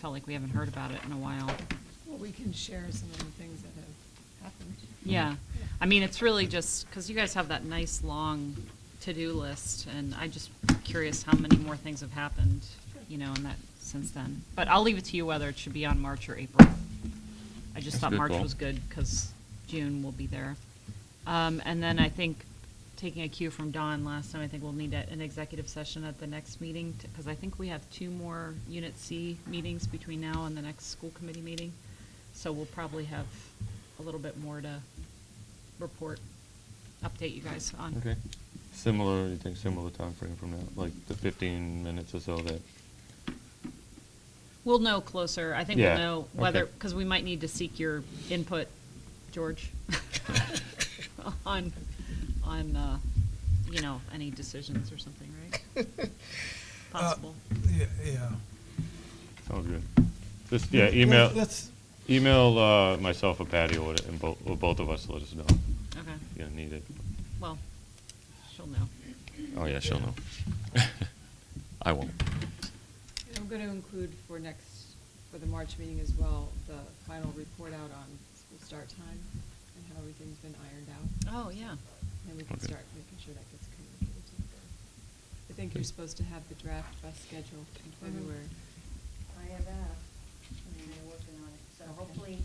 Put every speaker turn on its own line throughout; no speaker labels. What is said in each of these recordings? felt like we haven't heard about it in a while.
Well, we can share some of the things that have happened.
Yeah, I mean, it's really just, because you guys have that nice, long to-do list, and I just curious how many more things have happened, you know, in that, since then. But I'll leave it to you whether it should be on March or April. I
That's
just
a
thought
good
March
call.
was good, because June will be there. Um, and then I think, taking a cue from Don last time, I think we'll need a- an executive session at the next meeting, because I think we have two more Unit C meetings between now and the next school committee meeting. So we'll probably have a little bit more to report, update you guys on.
Okay. Similar, you think similar time frame from now, like the fifteen minutes or so that,
We'll know closer. I think we'll
Yeah,
know whether,
okay.
because we might need to seek your input, George, on, on, uh, you know, any decisions or something, right? Possible.
Uh, Yeah, yeah.
sounds good. Just, yeah, email,
That's,
email, uh, myself or Patty or, whatever, and both, or both of us, let us know if
Okay,
you need it.
well, she'll know.
Oh, yeah, she'll
Yeah.
know. I won't.
And I'm going to include for next, for the March meeting as well, the final report out on school start time and how everything's been ironed out.
Oh, yeah.
And we can
Okay.
start making sure that gets communicated to the board. I think you're
Okay.
supposed to have the draft bus schedule in
Mhm.
February.
I have asked, and they're working on it, so
Okay.
hopefully,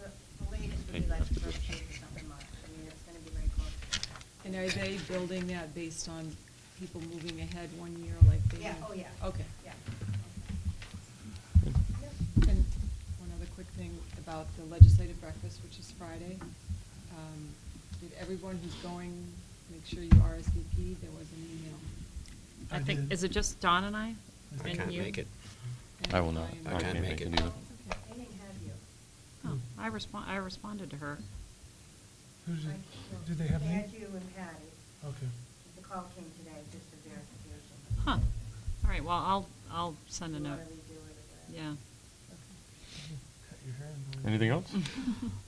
the the latest would be like the first week or something like, I mean, it's gonna be very close.
And are they building that based on people moving ahead one year like they
Yeah,
have?
oh, yeah.
Okay.
Yeah.
And one other quick thing about the legislative breakfast, which is Friday. Um, Did everyone who's going, make sure you RSVP, there was an email.
I
I
think,
did.
is it just Don and I?
I
And
can't
you?
make it.
And
I will not.
am-
I can't make it either.
Okay.
Oh, They didn't have you.
Oh, I respond, I responded to her.
who's
I-
it,
no,
do they have
They
me?
had you and Patty.
Okay.
The call came today, just for verification.
Huh. All right, well, I'll, I'll send a
You
note.
wanna redo it or whatever.
Yeah.
Cut your hair and go.
Anything else?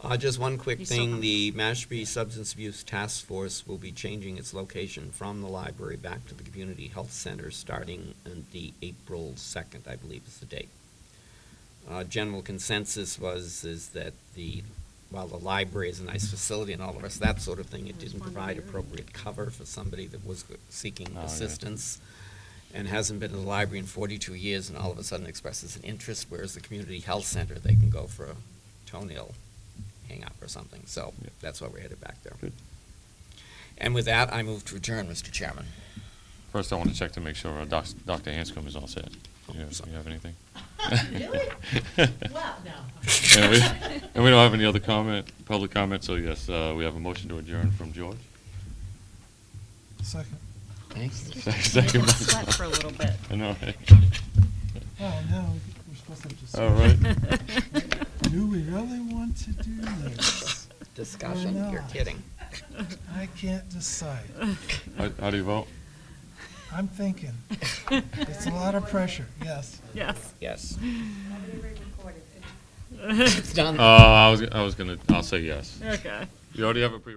Uh, just one quick
You still have-
thing, the Mashpee Substance Abuse Task Force will be changing its location from the library back to the Community Health Center starting on the April second, I believe is the date. Uh, general consensus was, is that the, while the library is a nice facility and all the rest of that sort of thing, it didn't
Respond to
provide
the urgent.
appropriate cover for somebody that was seeking
Oh, yeah.
assistance and hasn't been to the library in 42 years and all of a sudden expresses an interest, whereas the community health center, they can go for a toenail hang up or something. So
Yeah.
that's why we're headed back there.
Good.
And with that, I move to adjourn, Mr. Chairman.
First, I want to check to make sure uh, Doc- Dr. Hanscom is all set. You have, you have anything?
Really? Well,
And we, and we don't have any other comment, public comment, so yes, uh, we have a motion to adjourn from George.
Second.
Thanks.
Second by-
Sweat for a little bit.
I know, right?
Oh, no, we're supposed to just.
All right.
Do we really want to do this?
Discussion, you're
not?
kidding.
I can't decide.
How, how do you vote?
I'm thinking. It's a lot of pressure, yes.
Yes.
Yes.
nobody recorded it.
It's done.
Oh, Uh, I was, I was gonna, I'll say yes.
Okay.
You already have a pre.